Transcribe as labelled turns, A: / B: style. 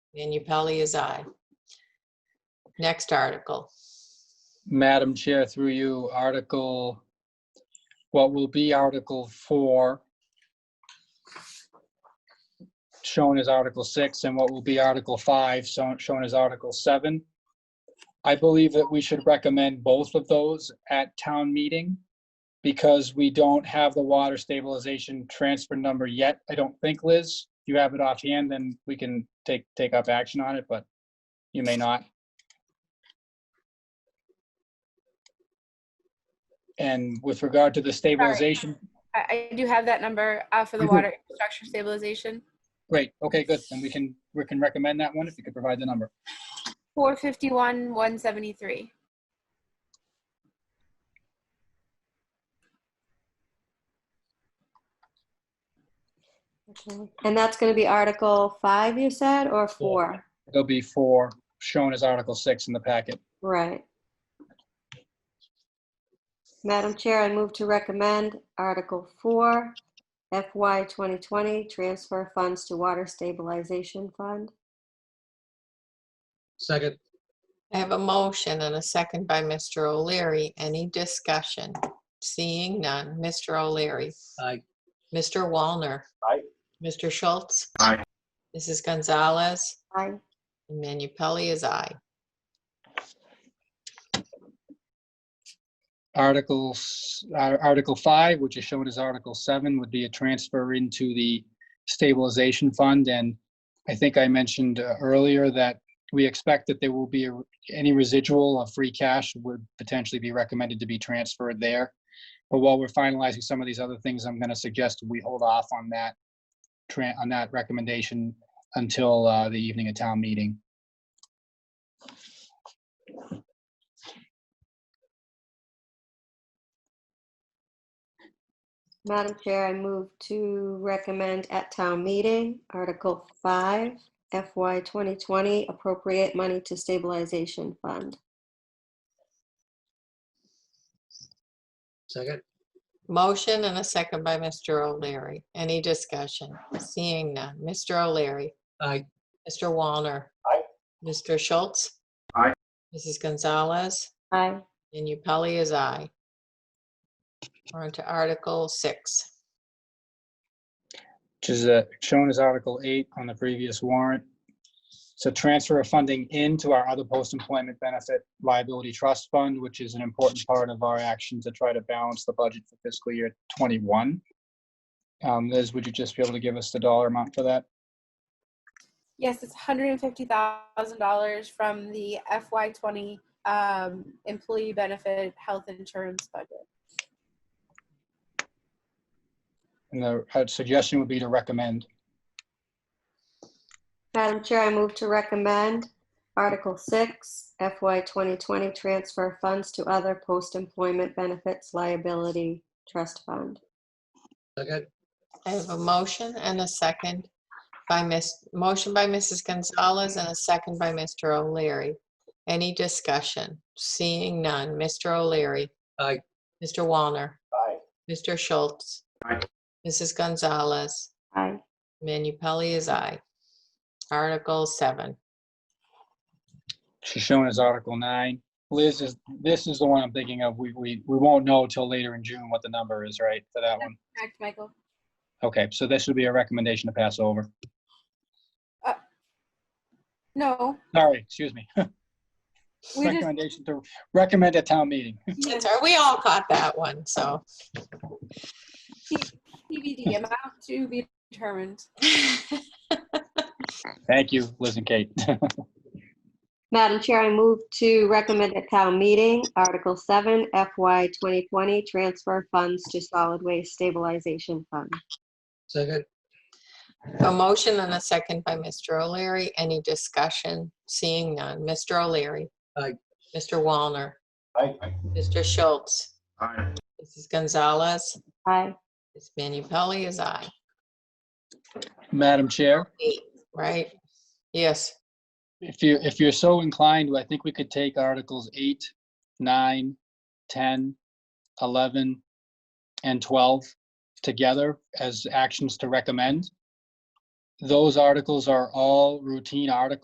A: And Pelli is aye. Next article.
B: Madam Chair, through you, Article, what will be Article 4, shown as Article 6, and what will be Article 5, so- shown as Article 7. I believe that we should recommend both of those at town meeting because we don't have the water stabilization transfer number yet, I don't think, Liz. If you have it offhand, then we can take, take up action on it, but you may not. And with regard to the stabilization,
C: I, I do have that number uh, for the
B: Mhm.
C: water infrastructure stabilization.
B: great, okay, good. Then we can, we can recommend that one if you could provide the number.
C: Four fifty-one, one seventy-three.
D: Okay. And that's going to be Article 5, you said, or 4?
B: There'll be four, shown as Article 6 in the packet.
D: Right. Madam Chair, I move to recommend Article 4, FY 2020, transfer funds to Water Stabilization Fund.
E: Second,
A: I have a motion and a second by Mr. O'Leary. Any discussion? Seeing none. Mr. O'Leary.
E: aye.
A: Mr. Walner.
F: Aye.
A: Mr. Schultz.
F: Aye.
A: Mrs. Gonzalez.
D: Aye.
A: And Manu Pelli is aye.
B: Articles, Ar- Article 5, which is shown as Article 7, would be a transfer into the stabilization fund. And I think I mentioned uh, earlier that we expect that there will be, a- any residual of free cash would potentially be recommended to be transferred there. But while we're finalizing some of these other things, I'm going to suggest we hold off on that, tran- on that recommendation until uh, the evening of town meeting.
D: Madam Chair, I move to recommend at town meeting, Article 5, FY 2020, appropriate money to stabilization fund.
E: Second,
A: Motion and a second by Mr. O'Leary. Any discussion? Seeing none. Mr. O'Leary.
E: aye.
A: Mr. Walner.
F: Aye.
A: Mr. Schultz.
F: Aye.
A: Mrs. Gonzalez.
D: Aye.
A: And Pelli is aye. We're on to Article 6.
B: which is uh, shown as Article 8 on the previous warrant. It's a transfer of funding into our other post-employment benefit liability trust fund, which is an important part of our action to try to balance the budget for fiscal year 21. Um, Liz, would you just be able to give us the dollar amount for that?
C: Yes, it's hundred and fifty thousand dollars from the FY twenty um, employee benefit health insurance budget.
B: And the uh, suggestion would be to recommend.
D: Madam Chair, I move to recommend Article 6, FY 2020, transfer funds to other post-employment benefits liability trust fund.
E: Second,
A: I have a motion and a second by Miss, motion by Mrs. Gonzalez and a second by Mr. O'Leary. Any discussion? Seeing none. Mr. O'Leary.
E: aye.
A: Mr. Walner.
F: Aye.
A: Mr. Schultz.
F: Aye.
A: Mrs. Gonzalez.
D: Aye.
A: Manu Pelley is aye. Article 7.
B: She's shown as Article 9. Liz, is this is the one I'm thinking of. We we We won't know till later in June what the number is, right, for that one?
C: Correct, Michael?
B: Okay, so this would be a recommendation to pass over.
C: No,
B: Sorry, excuse me.
C: We just-
B: Recommendation to recommend at town meeting.
A: That's our- We all caught that one, so.
C: TBD amount to be determined.
B: Thank you, Liz and Kate.
D: Madam Chair, I move to recommend at town meeting, Article 7, FY 2020, transfer funds to solid waste stabilization fund.
E: Second,
A: A motion and a second by Mr. O'Leary. Any discussion? Seeing none. Mr. O'Leary.
E: Aye.
A: Mr. Walner.
F: Aye.
A: Mr. Schultz.
F: Aye.
A: Mrs. Gonzalez.
D: Aye.
A: Ms. Manu Pelley is aye.
B: Madam Chair,
A: Eight, right? Yes.
B: if you, if you're so inclined, I think we could take Articles 8, 9, 10, 11, and 12 together as actions to recommend. Those articles are all routine articles